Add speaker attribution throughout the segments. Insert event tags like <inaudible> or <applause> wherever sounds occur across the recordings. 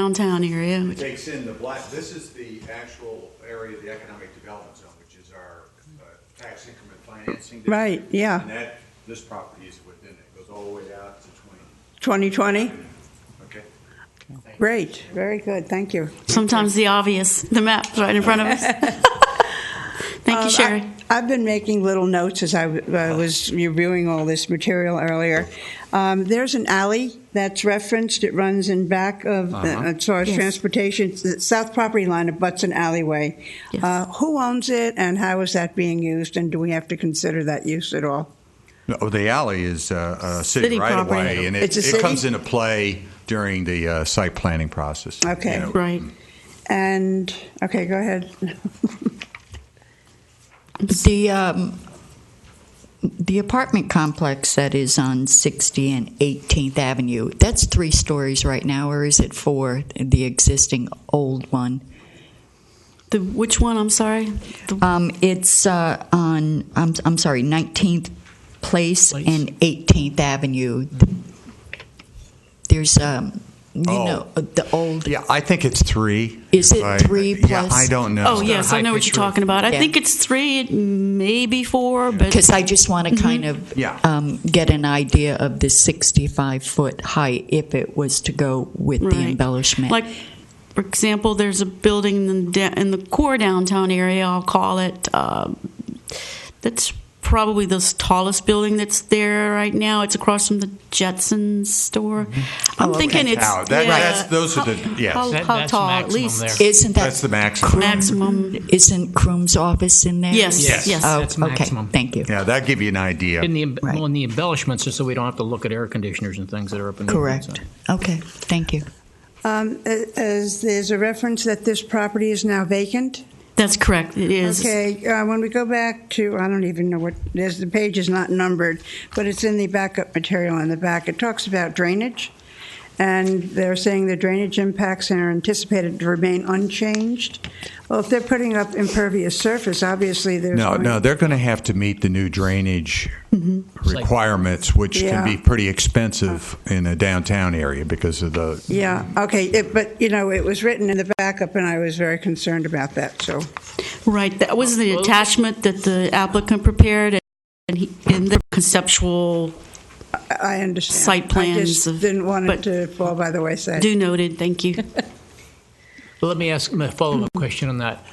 Speaker 1: downtown area.
Speaker 2: It
Speaker 1: which-
Speaker 2: takes in the black, this is the actual area of the economic development zone, which is our uh, tax increment financing. district.
Speaker 3: Right, yeah.
Speaker 2: And that, this property is within it, It goes all the way out to
Speaker 3: 2020?
Speaker 2: 20, okay?
Speaker 3: Great, very good, thank you.
Speaker 1: Sometimes the obvious, the map's right in front of
Speaker 4: <laughs>
Speaker 1: us. Thank
Speaker 3: Um,
Speaker 1: you,
Speaker 3: I-
Speaker 1: Sherry.
Speaker 3: I've been making little notes as I w- I was reviewing all this material earlier. Um, There's an alley that's referenced, it runs in back of, the- as far as
Speaker 1: Yes.
Speaker 3: transportation, the south property line abuts an alleyway.
Speaker 1: Yes.
Speaker 3: Uh, Who owns it, and how is that being used, and do we have to consider that use at all?
Speaker 5: No, the alley is uh, a
Speaker 1: City
Speaker 5: city right of
Speaker 1: property.
Speaker 5: way, and
Speaker 3: It's
Speaker 5: it,
Speaker 3: a
Speaker 5: it
Speaker 3: city?
Speaker 5: comes into play during the uh, site planning process.
Speaker 3: Okay.
Speaker 5: You know,
Speaker 1: Right.
Speaker 3: And, okay, go ahead.
Speaker 4: The, um, the apartment complex that is on 60 and 18th Avenue, that's three stories right now, or is it four, the existing old one?
Speaker 1: The, which one, I'm sorry? The-
Speaker 4: Um, It's uh, on, I'm, I'm sorry, 19th Place and 18th Avenue. There's, um, you
Speaker 5: Oh.
Speaker 4: know, uh, the old,
Speaker 5: Yeah, I think it's three.
Speaker 4: Is
Speaker 5: if
Speaker 4: it
Speaker 5: I-
Speaker 4: three
Speaker 5: Yeah,
Speaker 4: plus-
Speaker 5: I don't know.
Speaker 1: Oh, yes, I know what you're talking about. I
Speaker 4: Yeah.
Speaker 1: think it's three, maybe four, but
Speaker 4: because I just want to kind of
Speaker 5: Yeah.
Speaker 4: um, get an idea of the 65-foot height if it was to go with the
Speaker 1: Right.
Speaker 4: embellishment.
Speaker 1: Like, for example, there's a building in the, in the core downtown area, I'll call it, um, that's probably the tallest building that's there right now. It's across from the Jetsons store. I'm
Speaker 4: Oh,
Speaker 1: thinking
Speaker 4: okay.
Speaker 1: it's,
Speaker 5: Oh, that-
Speaker 1: yeah.
Speaker 5: that's- those are the-
Speaker 1: How-
Speaker 5: yes.
Speaker 1: How,
Speaker 6: Mm-hmm. That-
Speaker 1: how
Speaker 6: that's
Speaker 1: tall, at
Speaker 6: maximum
Speaker 1: least?
Speaker 6: there.
Speaker 4: Isn't that
Speaker 5: That's the maximum.
Speaker 1: Maximum.
Speaker 4: Isn't Croom's office in there?
Speaker 1: Yes, Yes, yes.
Speaker 4: Oh,
Speaker 6: that's
Speaker 4: okay.
Speaker 6: maximum.
Speaker 4: Thank you.
Speaker 5: Yeah, that'd give you an idea.
Speaker 6: In the, em-
Speaker 4: Right.
Speaker 6: well, in the embellishments, just so we don't have to look at air conditioners and things that are up in. the
Speaker 4: Correct. Okay. Thank you.
Speaker 3: Um, a- As, there's a reference that this property is now vacant?
Speaker 1: That's correct, it is.
Speaker 3: Okay, uh, when we go back to, I don't even know what, there's, the page is not numbered, but it's in the backup material in the back. It talks about drainage, and they're saying the drainage impacts are anticipated to remain unchanged. Well, if they're putting up impervious surface, obviously there's.
Speaker 5: No,
Speaker 3: going-
Speaker 5: no, they're going to have to meet the new drainage
Speaker 1: Mm-hmm.
Speaker 5: requirements, which
Speaker 3: Yeah.
Speaker 5: can be pretty expensive in a downtown area because of the
Speaker 3: Yeah, okay, it- but, you know, it was written in the backup, and I was very concerned about that, so.
Speaker 1: Right, that was the attachment that the applicant prepared, and he, in the conceptual,
Speaker 3: I I understand.
Speaker 1: Site
Speaker 3: I
Speaker 1: plans
Speaker 3: just
Speaker 1: of-
Speaker 3: didn't want
Speaker 1: but-
Speaker 3: it to fall by the wayside.
Speaker 1: do noted, thank you.
Speaker 6: Well, let me ask a follow-up question on that.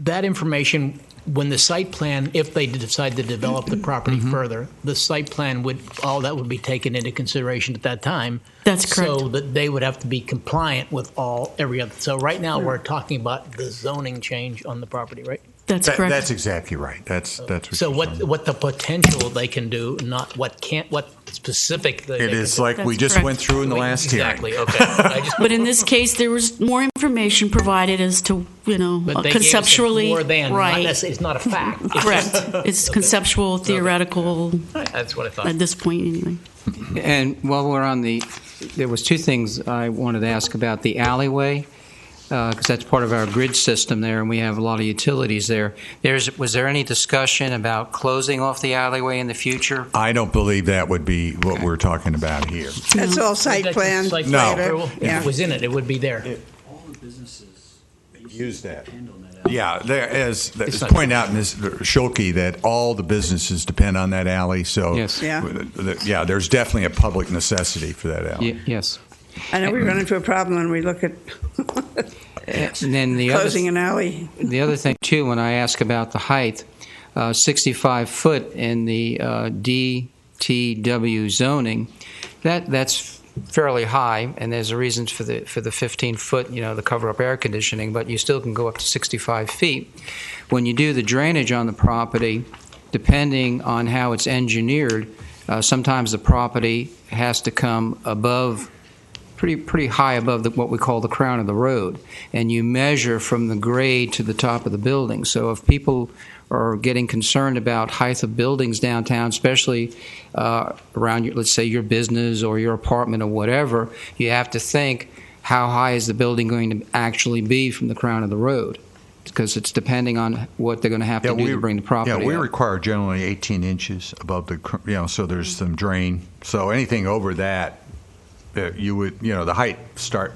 Speaker 6: That information, when the site plan, if they decide to develop the property
Speaker 5: Mm-hmm.
Speaker 6: further, the site plan would, all that would be taken into consideration at that time.
Speaker 1: That's correct.
Speaker 6: So that they would have to be compliant with all, every other, so right now, we're talking about the zoning change on the property, right?
Speaker 1: That's
Speaker 5: That-
Speaker 1: correct.
Speaker 5: That's exactly right. That's that's what
Speaker 6: So
Speaker 5: you're
Speaker 6: what,
Speaker 5: talking about.
Speaker 6: what the potential they can do, not what can't, what specific they they
Speaker 5: It
Speaker 6: can
Speaker 5: is
Speaker 6: do.
Speaker 5: like we
Speaker 1: That's
Speaker 5: just
Speaker 1: correct.
Speaker 5: went through in the last hearing.
Speaker 6: Exactly, okay. I
Speaker 1: <laughs>
Speaker 6: just-
Speaker 1: But in this case, there was more information provided as to, you know,
Speaker 6: But they gave us a
Speaker 1: conceptually.
Speaker 6: more than, not
Speaker 1: right,
Speaker 6: necess- It's not a fact. It's
Speaker 1: Correct.
Speaker 6: just-
Speaker 1: It's
Speaker 6: <laughs>
Speaker 1: conceptual, theoretical,
Speaker 6: That's what I thought.
Speaker 1: at this point, anyway.
Speaker 7: And while we're on the, there was two things I wanted to ask about the alleyway, because that's part of our grid system there, and we have a lot of utilities there. There's, was there any discussion about closing off the alleyway in the future?
Speaker 5: I don't believe that would be what we're talking about here.
Speaker 3: That's all site
Speaker 6: That's
Speaker 3: plan.
Speaker 6: site
Speaker 5: No.
Speaker 6: plan approval.
Speaker 3: Yeah.
Speaker 6: If it was in it, it would be there.
Speaker 8: all the businesses
Speaker 5: Use that.
Speaker 8: depend on that alley.
Speaker 5: Yeah, there, as, as
Speaker 6: not-
Speaker 5: pointed out in this, Schulte, that all the businesses depend on that alley, so.
Speaker 7: Yes.
Speaker 3: Yeah.
Speaker 5: Yeah, there's definitely a public necessity for that alley.
Speaker 7: Ye- Yes.
Speaker 3: I know we run into a problem when we look at
Speaker 7: And then the other,
Speaker 3: closing an alley.
Speaker 7: the other thing too, when I ask about the height, uh, 65 foot in the uh, DTW zoning, that, that's fairly high, and there's a reason for the, for the 15 foot, you know, the cover-up air conditioning, but you still can go up to 65 feet. When you do the drainage on the property, depending on how it's engineered, uh, sometimes the property has to come above, pretty, pretty high above the, what we call the crown of the road, and you measure from the grade to the top of the building. So if people are getting concerned about height of buildings downtown, especially uh, around, your, let's say, your business or your apartment or whatever, you have to think how high is the building going to actually be from the crown of the road? Because it's depending on what they're going to have to do to bring the property
Speaker 5: Yeah, we
Speaker 7: up.
Speaker 5: require generally 18 inches above the, cr- you know, so there's some drain. So anything over that uh, you would, you know, the height start,